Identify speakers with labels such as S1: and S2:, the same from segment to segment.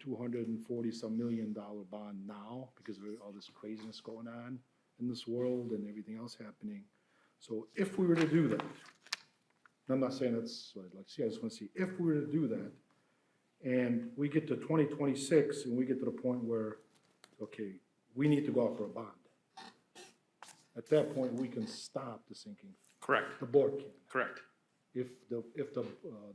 S1: two hundred and forty-some million dollar bond now because of all this craziness going on in this world and everything else happening. So if we were to do that, and I'm not saying that's what I'd like to see, I just want to see, if we were to do that, and we get to twenty twenty-six and we get to the point where, okay, we need to go out for a bond. At that point, we can stop the sinking,
S2: Correct,
S1: the board can,
S2: correct, if
S1: if the, if the, uh,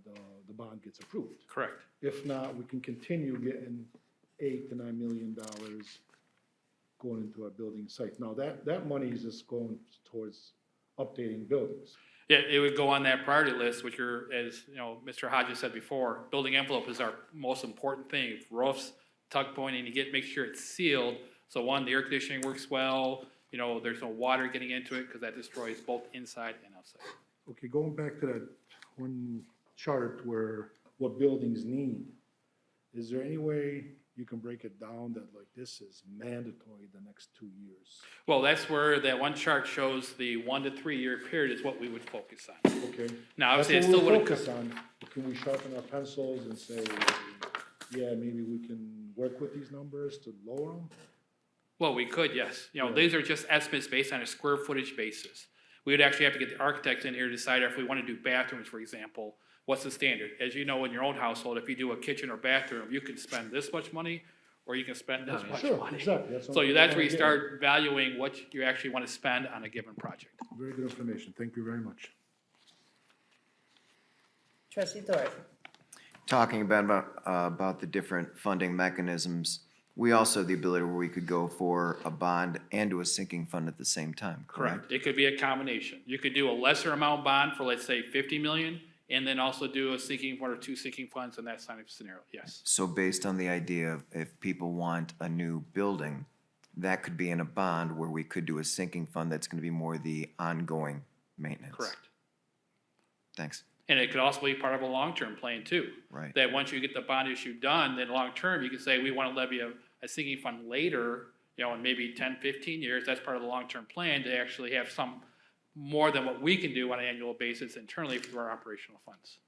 S1: the, the bond gets approved.
S2: correct.
S1: If not, we can continue getting eight to nine million dollars going into our building site. Now, that, that money is just going towards updating buildings.
S2: Yeah, it would go on that priority list, which you're, as, you know, Mr. Hodges said before, building envelope is our most important thing. Roofs, tuck pointing, you get, make sure it's sealed, so one, the air conditioning works well, you know, there's no water getting into it, because that destroys both inside and outside.
S1: Okay, going back to that one chart where, what buildings need, is there any way you can break it down that like this is mandatory the next two years?
S2: Well, that's where that one chart shows the one to three-year period is what we would focus on.
S1: Okay?
S2: Now,
S1: That's
S2: obviously, it
S1: what
S2: still
S1: we
S2: wouldn't,
S1: focus on. Can we sharpen our pencils and say, yeah, maybe we can work with these numbers to lower them?
S2: Well, we could, yes. You know, these are just estimates based on a square footage basis. We would actually have to get the architect in here to decide if we want to do bathrooms, for example, what's the standard? As you know, in your own household, if you do a kitchen or bathroom, you can spend this much money, or you can spend this much
S1: Oh, Sure,
S2: money.
S1: exactly. what
S2: So
S1: I'm-
S2: you- that's where you
S1: yeah.
S2: start valuing what you actually want to spend on a given project.
S1: Very good information. Thank you very much.
S3: Trustee Thorpe,
S4: talking about, about, uh, about the different funding mechanisms, we also have the ability where we could go for a bond and to a sinking fund at the same time, correct?
S2: It could be a combination. You could do a lesser amount bond for, let's say, fifty million, and then also do a sinking fund or two sinking funds in that kind of scenario, yes.
S4: So based on the idea of if people want a new building, that could be in a bond where we could do a sinking fund that's gonna be more the ongoing maintenance.
S2: Correct.
S4: Thanks.
S2: And it could also be part of a long-term plan too.
S4: Right.
S2: That once you get the bond issue done, then long-term, you can say, we want to levy a, a sinking fund later, you know, in maybe 10, 15 years, that's part of the long-term plan to actually have some, more than what we can do on an annual basis internally through our operational funds.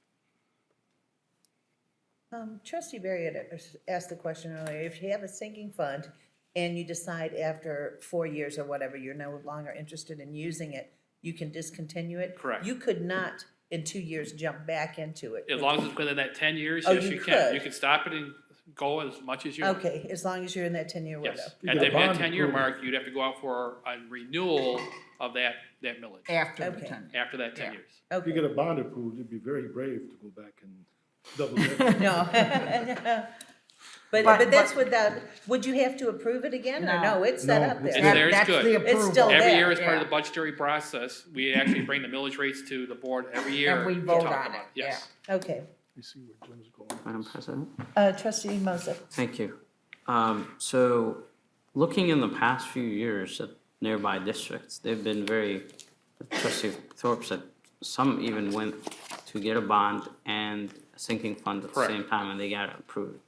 S3: um, trustee Barry had asked the question earlier, if you have a sinking fund and you decide after four years or whatever, you're no longer interested in using it, you can discontinue it?
S2: Correct.
S3: You could not in two years jump back into it?
S2: As long as it's within that 10 years,
S3: Oh,
S2: yes,
S3: you
S2: you can.
S3: could.
S2: You can stop it and go as much as you want.
S3: Okay, as long as you're in that ten-year window?
S2: Yes.
S1: You
S2: At
S1: got a
S2: the
S1: bond
S2: ten-year
S1: approval.
S2: mark, you'd have to go out for a renewal of that, that millage
S5: After the
S3: Okay.
S5: ten.
S2: after that 10
S5: Yeah.
S2: years.
S1: If you
S3: Okay,
S1: get a bond approved, it'd be very brave to go back and double it.
S3: no. No. But,
S5: But-
S3: but that's without, would you have to approve it again, or
S5: No.
S3: no, it's set
S1: No,
S3: up
S1: it's
S2: It's
S5: That-
S3: there?
S2: there, it's
S5: that's
S2: good.
S5: the
S2: It's
S5: approval.
S3: still there.
S2: Every year as part of
S5: Oh, Yeah.
S2: the budgetary process, we actually bring the millage rates to the board every year.
S5: we
S2: to
S5: vote
S2: talk
S5: on
S2: about
S5: it,
S2: Yes.
S3: Okay,
S1: You see where Jim's going.
S6: Madam President,
S3: uh, trustee Moses,
S6: thank you. Um, So, looking in the past few years at nearby districts, they've been very, trustee Thorpe said, some even went to get a bond and a sinking fund at the
S2: Correct.
S6: same time, and they got it approved.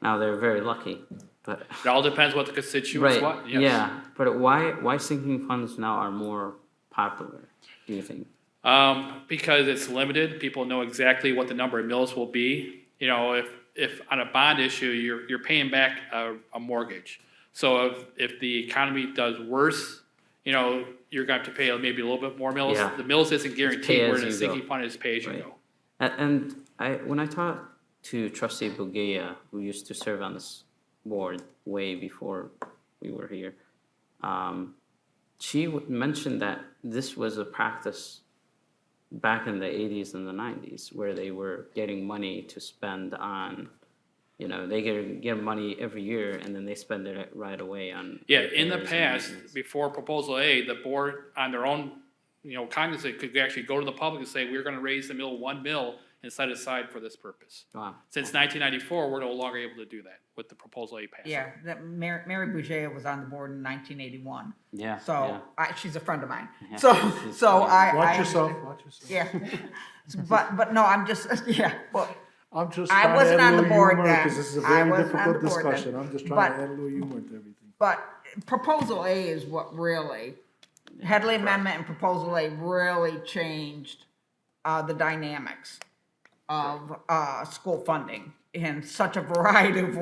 S6: Now, they're very lucky, but,
S2: It all depends what the constituents
S6: right,
S2: want, yes.
S6: yeah. But why, why sinking funds now are more popular, do you think?
S2: Um, because it's limited, people know exactly what the number of mills will be. You know, if, if on a bond issue, you're, you're paying back a, a mortgage. So if, if the economy does worse, you know, you're going to have to pay maybe a little bit more mills.
S6: Yeah.
S2: The mills isn't guaranteed,
S6: as
S2: where the
S6: you go.
S2: sinking fund is pay as you
S6: Right.
S2: go.
S6: A- And I, when I talked to trustee Bugia, who used to serve on this board way before we were here, um, she w- mentioned that this was a practice back in the eighties and the nineties, where they were getting money to spend on, you know, they get, get money every year and then they spend it right away on.
S2: Yeah, in the
S6: repairs and
S2: past,
S6: maintenance.
S2: before proposal A, the board on their own, you know, cognizant could actually go to the public and say, we're gonna raise the mill one mill and set aside for this purpose.
S6: Wow.
S2: Since nineteen ninety-four, we're no longer able to do that with the proposal A passing.
S5: Yeah, that Mary, Mary Boucher was on the board in nineteen eighty-one.
S6: Yeah, yeah.
S5: So, I, she's a friend of mine. So, so I.
S1: Watch
S5: I-
S1: yourself, watch yourself.
S5: Yeah. But, but no, I'm just, yeah, well,
S1: I'm just
S5: I
S1: trying to
S5: wasn't
S1: add
S5: on
S1: a
S5: the
S1: little
S5: board
S1: humor
S5: then.
S1: because this is a
S5: I
S1: very
S5: wasn't on
S1: difficult
S5: the board then.
S1: discussion. I'm just trying to
S5: But-
S1: add a little humor to everything.
S5: but proposal A is what really, Headley Amendment and proposal A really changed, uh, the dynamics of, uh, school funding. in such a variety of